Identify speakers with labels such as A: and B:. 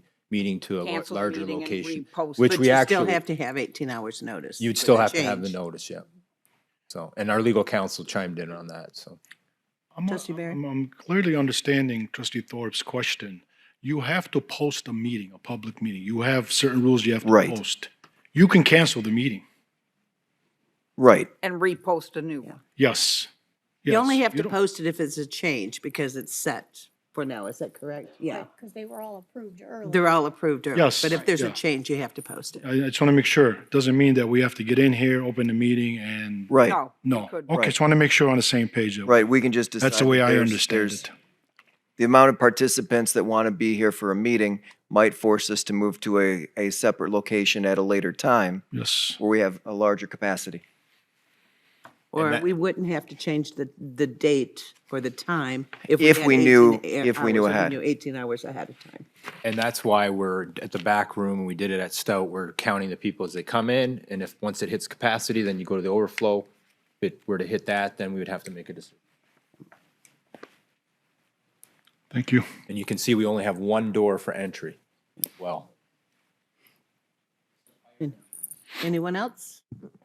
A: meeting to a lo-
B: Cancel the
A: larger
B: meeting and
A: location,
B: repost
A: which
B: it.
A: we
C: But you still
A: actually-
C: have to have eighteen hours notice.
A: you'd
C: for
A: still have to have the
C: change.
A: notice, yeah. So, and our legal counsel chimed in on that, so.
D: I'm,
C: Trustee Barry?
D: I'm, I'm clearly understanding trustee Thorpe's question. You have to post a meeting, a public meeting. You have certain rules you have to
E: Right.
D: post. You can cancel the meeting.
E: Right.
B: and repost a new one.
D: Yes.
C: You only
D: Yes.
C: have to
D: don't-
C: post it if it's a change because it's set for now. Is that correct? Yeah.
F: Because they were all approved early.
C: They're all approved early.
D: Yes,
C: But if there's a
D: yeah.
C: change, you have to post it.
D: I, I just want to make sure. Doesn't mean that we have to get in here, open the meeting and.
E: Right.
B: No. it
D: No.
B: could-
D: Okay,
E: Right.
D: just want to make sure we're on the same page. though.
E: Right. We can just decide.
D: That's the way
E: that
D: I
E: there's-
D: understand
E: there's-
D: it.
E: The amount of participants that want to be here for a meeting might force us to move to a, a separate location at a later time
D: Yes.
E: where we have a larger capacity.
C: Or
A: that-
C: we wouldn't have to change the, the date or the time.
E: If
C: had
E: we knew-
C: 18
E: if we knew
C: hours or
E: ahead.
C: Eighteen hours ahead of time.
A: And that's why we're at the back room, and we did it at Stout, we're counting the people as they come in, and if, once it hits capacity, then you go to the overflow. If it were to hit that, then we would have to make a decision.
D: Thank you.
A: And you can see we only have one door for entry. Well,
C: Anyone else?